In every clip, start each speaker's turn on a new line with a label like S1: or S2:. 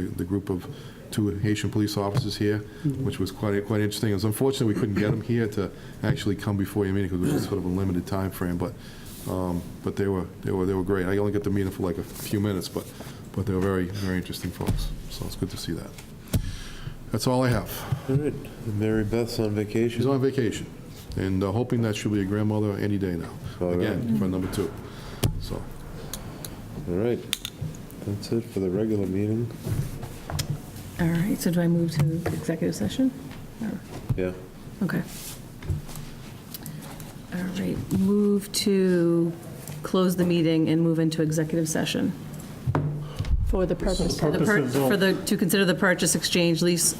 S1: the group of two Haitian police officers here, which was quite, quite interesting. It was unfortunate we couldn't get them here to actually come before your meeting because it was sort of a limited time frame. but, um, but they were, they were, they were great. I only got to meet them for like a few minutes, but, but they were very, very interesting folks, so it's good to see that. That's all I have.
S2: All right, and Mary Beth's on
S1: She's
S2: vacation.
S1: on vacation, and uh, hoping that she'll be a grandmother any day now,
S2: All right.
S1: again, for number two, so.
S2: All right, that's it for the regular meeting.
S3: All right, so do I move to executive session? Or-
S2: Yeah,
S3: Okay. All right, move to close the meeting and move into executive session.
S4: For the purpose.
S3: The pur- For the, to consider the purchase, exchange, lease,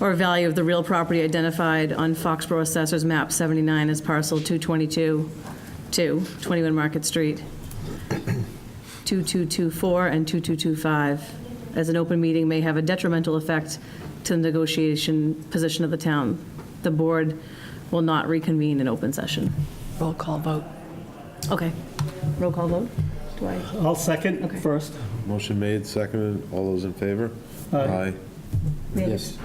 S3: or value of the real property identified on Foxborough Assessor's Map 79 as parcel 222, 2, 21 Market Street, 2224 and 2225, as an open meeting may have a detrimental effect to the negotiation position of the town. The board will not reconvene in open session.
S4: Roll call vote.
S3: Okay. Roll call vote? Do I?
S5: I'll second
S3: Okay.
S5: first.
S2: motion made, seconded, all those in favor?
S5: Aye.
S3: Yes.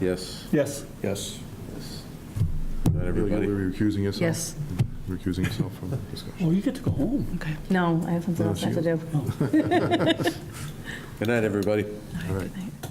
S2: Yes,
S5: Yes.
S2: yes. Not
S1: You're
S2: everybody.
S1: recusing yourself?
S3: Yes.
S1: Recusing yourself from the discussion.
S5: Oh, you get to go home.
S4: Okay.
S3: No, I have something else I have to do.
S2: Good night, everybody.
S1: All right.
S3: Good night.